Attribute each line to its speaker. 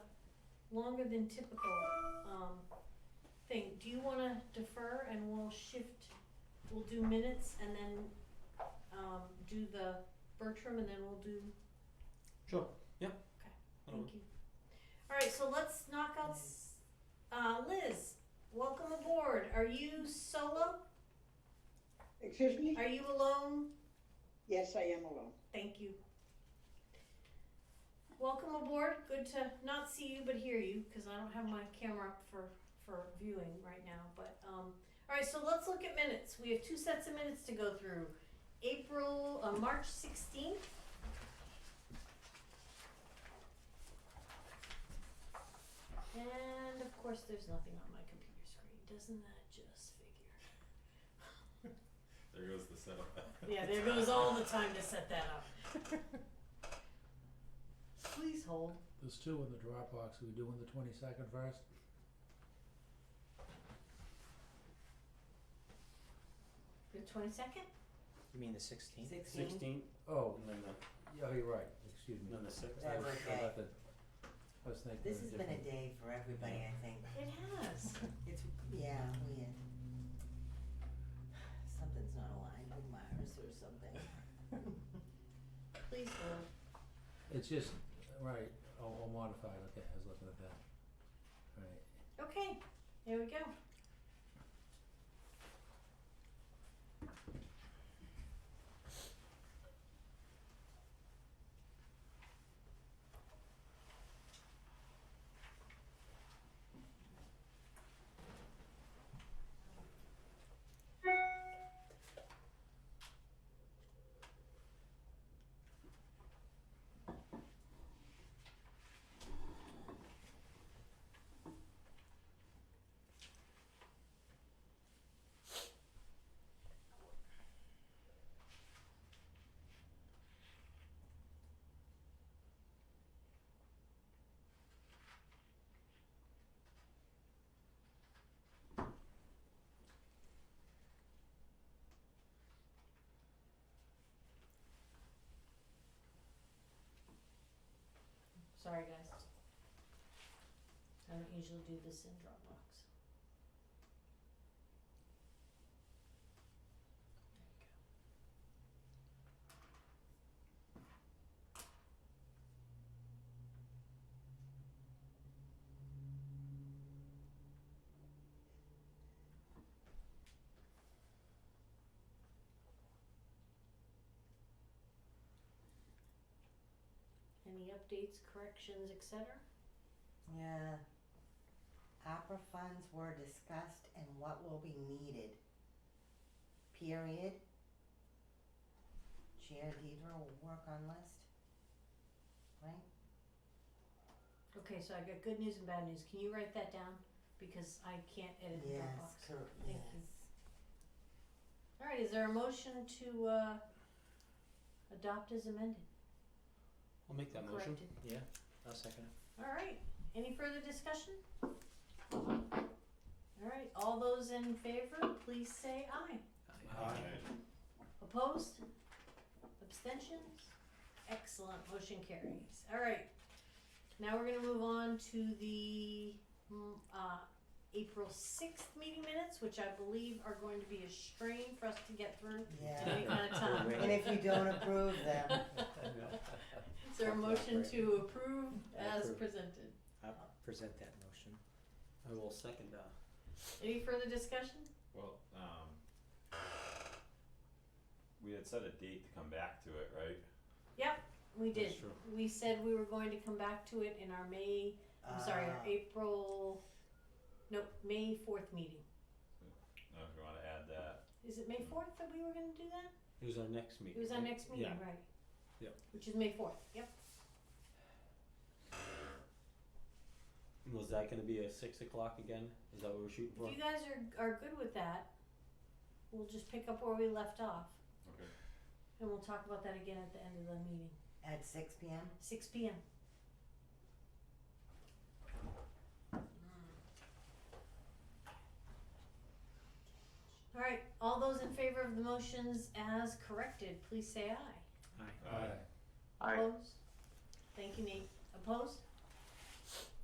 Speaker 1: longer than typical, um, thing, do you wanna defer and we'll shift, we'll do minutes and then, um, do the Bertram and then we'll do,
Speaker 2: Sure. Yeah.
Speaker 1: Okay.
Speaker 2: That'll work.
Speaker 1: thank you. Alright, so let's knock out, s- uh, Liz, welcome aboard, are you solo,
Speaker 3: Excuse me?
Speaker 1: are you alone?
Speaker 3: Yes, I am alone.
Speaker 1: Thank you. Welcome aboard. Good to not see you but hear you because I don't have my camera up for, for viewing right now. But um, all right, so let's look at minutes. We have two sets of minutes to go through. April, uh, March 16th. And of course, there's nothing on my computer screen. Doesn't that just figure?
Speaker 2: There goes the setup.
Speaker 1: Yeah, there goes all the time to set that up. Please hold.
Speaker 4: There's two in the Dropbox, are we doing the twenty-second first?
Speaker 1: The twenty-second?
Speaker 5: You mean the sixteenth?
Speaker 6: Mm-hmm.
Speaker 2: Sixteen,
Speaker 4: Oh,
Speaker 2: and then
Speaker 4: yeah, you're right, excuse
Speaker 2: the,
Speaker 4: me.
Speaker 2: then the sixth.
Speaker 4: I was- I
Speaker 6: Okay.
Speaker 4: got the- I was thinking.
Speaker 6: This
Speaker 4: of
Speaker 6: has been a
Speaker 4: different-
Speaker 6: day for everybody, I think.
Speaker 1: It has.
Speaker 6: It's, yeah, weird. Something's not aligned with Mars or something.
Speaker 1: Please hold.
Speaker 4: It's just, right, all, all modified, okay, I was looking at that. Right,
Speaker 1: Okay, there we go. Sorry, guys. I don't usually do this in Dropbox. Any updates, corrections, et cetera?
Speaker 6: Yeah. Opera funds were discussed and what will be needed. Period. Chair Deidre will work on list. Right?
Speaker 1: Okay, so I got good news and bad news. Can you write that down? Because I can't edit in
Speaker 6: Yes,
Speaker 1: Dropbox.
Speaker 6: cor-
Speaker 1: Thank
Speaker 6: yes.
Speaker 1: you. All right, is there a motion to, uh, adopt as amended?
Speaker 5: I'll make that motion.
Speaker 1: Corrected.
Speaker 5: Yeah, I'll second it.
Speaker 1: All right, any further discussion? All right, all those in favor, please say aye. Opposed? Abstentions? Excellent, motion carries. All right. Now we're gonna move on to the, mm, uh, April sixth meeting minutes, which I believe are going to be a strain for us to get through
Speaker 6: Yeah.
Speaker 1: any kind of time.
Speaker 6: And if you don't approve them,
Speaker 1: Is there a motion to approve as
Speaker 5: Approve.
Speaker 1: presented?
Speaker 5: I'll present that motion. I will second that.
Speaker 1: Any further discussion?
Speaker 7: Well, um, we had set a date to come back to it, right?
Speaker 1: We
Speaker 5: That's
Speaker 1: did.
Speaker 5: true.
Speaker 1: We said we were going to come back to it in our May, I'm sorry, our
Speaker 6: uh,
Speaker 1: April, no, May fourth meeting.
Speaker 7: Now, if you wanna add that,
Speaker 1: Is it May fourth that we were gonna do that?
Speaker 5: It was our next meeting.
Speaker 1: It was our
Speaker 5: right?
Speaker 1: next meeting, right?
Speaker 5: Yep.
Speaker 1: Which is May fourth, yep.
Speaker 5: Yeah. Was that gonna be a six o'clock again? Is that what we're shooting for?
Speaker 1: If you guys are, are good with that, we'll just pick up where we left off
Speaker 7: okay.
Speaker 1: and we'll talk about that again at the end of the meeting,
Speaker 6: uh, at six P M?
Speaker 1: six P M. Alright, all those in favor of the motions as corrected, please say aye.
Speaker 5: Aye.
Speaker 7: Aye.
Speaker 1: Opposed? Thank you, Nate. Opposed?